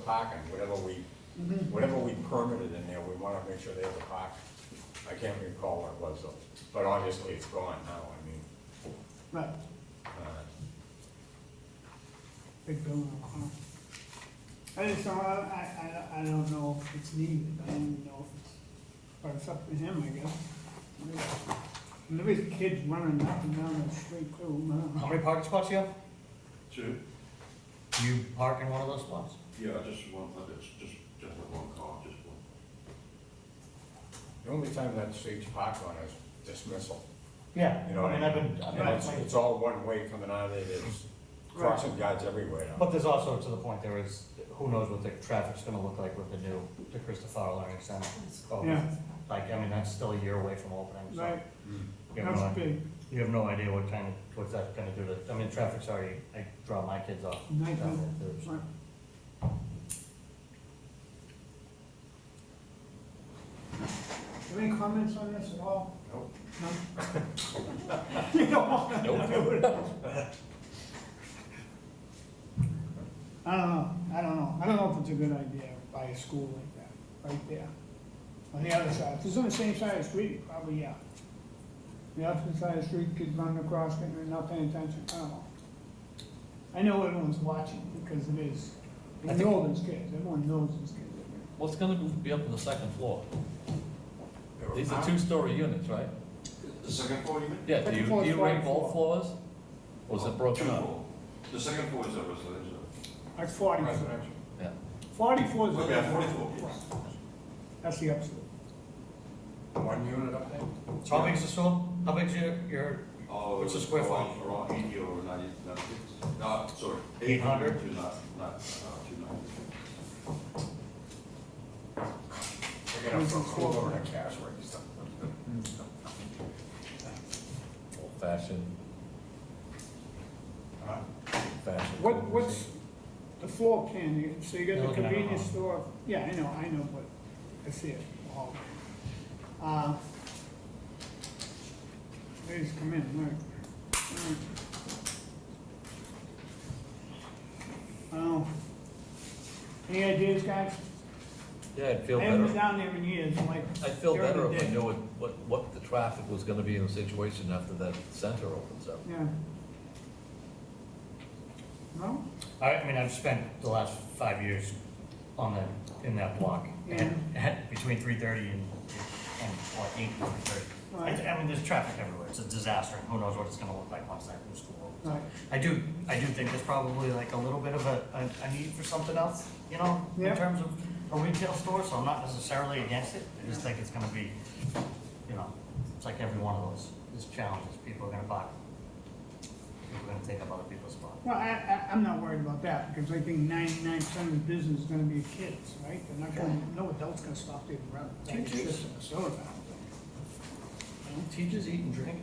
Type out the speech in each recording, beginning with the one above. parking, whatever we, whatever we permitted in there, we wanna make sure they have a park. I can't recall what it was, though, but obviously it's gone now, I mean, Right, uh, big building, huh? I just don't, I, I, I don't know if it's needed, I don't know if it's, but it's up to him, I guess. And there is kids running up and down the street too, How man. many parking spots you have? Two? Do you park in one of those spots? Yeah, just one, uh, it's just, just with one car, just one. The only time that street's parked on is dismissal, Yeah, you know what I mean? I've been, I've And been, it's, like- it's all one way coming out of there, there's crossing guards everywhere now. but there's also, to the point, there is, who knows what the traffic's gonna look like with the new, the Christopher Learning Center. Oh, Yeah. Like, I mean, that's still a year away from opening, so. Right, Mm. you have no that's idea- big, You have no idea what kind of, what that's gonna do to, I mean, traffic's already, I draw my kids off. down Night, huh? there, too, so. right. Any comments on this at all? Nope. No? You don't want to do it. I don't know, I don't know, I don't know if it's a good idea to buy a school like that, right there. On the other side, if it's on the same side of the street, probably, yeah. The opposite side of the street, kids running across, getting, they're not paying attention, I don't know. I know everyone's watching, because it is, I they think- know there's kids, everyone knows there's kids. out there. What's gonna be up on the second floor? They were These are parked- Uh-huh. two-story units, right? The second floor, you mean? Yeah, do you, Second floor do is you ground rate both floors? Or is it broken Two up? floor. The second floor is a residential. That's forty. Residential. Yeah. Forty-four is. Okay, forty-four, yes. That's the absolute. One unit up there? So how big's the store? How big's your, your, Oh, What's the square around- Around eighty or ninety, ninety-six, no, sorry. 800? Two nine, nine, uh, two ninety. They're gonna foreclose on a cash register. Old-fashioned, Huh? old-fashioned. What, what's the floor plan, You- so you You're got the looking at a convenience home. store, yeah, I know, I know, but I see it all. Uh, Please come in, look. Alright. Oh, any ideas, guys? Yeah, I'd feel I haven't been better, down there in years, like. I'd feel during the better if I day. knew what, what, what the traffic was gonna be in the situation after that center opens up. Yeah. No? I, I mean, I've spent the last five years on that, in that block. And, and between three thirty and, and, or eight and thirty. Right. I, I mean, there's traffic everywhere, it's a disaster, and who knows what it's gonna look like once that new school opens. Right. I do, I do think there's probably like a little bit of a, a, a need for something else, you know, in Yeah. terms of a retail store, so I'm not necessarily against it. I just think it's gonna be, you know, it's like every one of those, is challenges, people are gonna buy. People are gonna take up other people's spots. Well, I, I, I'm not worried about that, because I think ninety-nine percent of the business is gonna be kids, right? They're not gonna, no adult's gonna stop there and run. It's Teachers. just a soda fountain. Teachers eat and drink.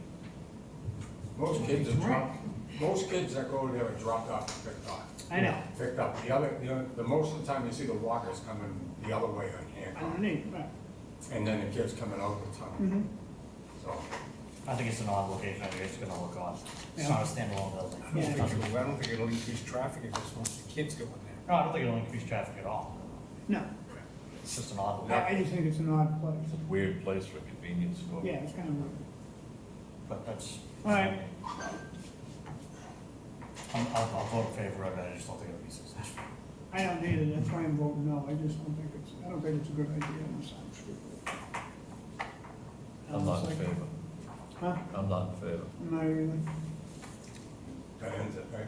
Most kids are dropped, most kids that go there are dropped off and picked up. I know, Picked up. The other, the, other- the most of the time you see the walkers coming the other way on Hancock. underneath, right. And then the kids coming out the tunnel. Mhm. So, I think it's an odd location, I think it's gonna look odd. It's Yeah. not a standalone building. I don't No, think it'll, I don't think it'll increase traffic if it's mostly kids going there. I don't think it'll increase traffic at all. No, It's just an odd I, I location, just think it's an odd place. It's a weird place for a convenience store. Yeah, it's kind of weird. but that's. All right. I'm, I'll, I'll vote in favor of it, I just don't think it'll be successful. I don't need it, that's why I'm voting no, I just don't think it's, I don't think it's a good idea on the side of the street. I'm not in Like- favor, Huh? I'm not in favor. Not really. that ends it, right?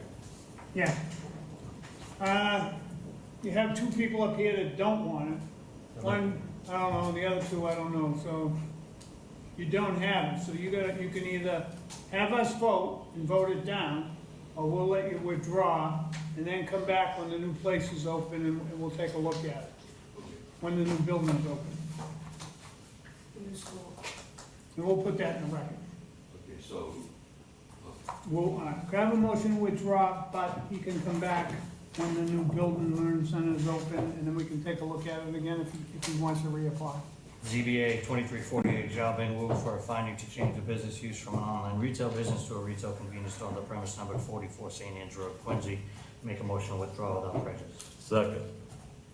Yeah. Uh, You have two people up here that don't want it. One, I don't know, the other two, I don't know, so you don't have it, so you gotta, you can either have us vote and vote it down, or we'll let you withdraw, and then come back when the new place is open and and we'll take a look at it, when the new building is open. And we'll put that in the record. Okay, so, Well, uh, could I have a motion to withdraw, but he can come back when the new building learn center is open, and then we can take a look at it again if, he- if he wants to reapply. ZBA twenty-three forty-eight, Zhao Bing Wu for a finding to change the business use from an online retail business to a retail convenience store on the premise number forty-four St. Andrew, Quincy. Make a motion to withdraw without prejudice. Second.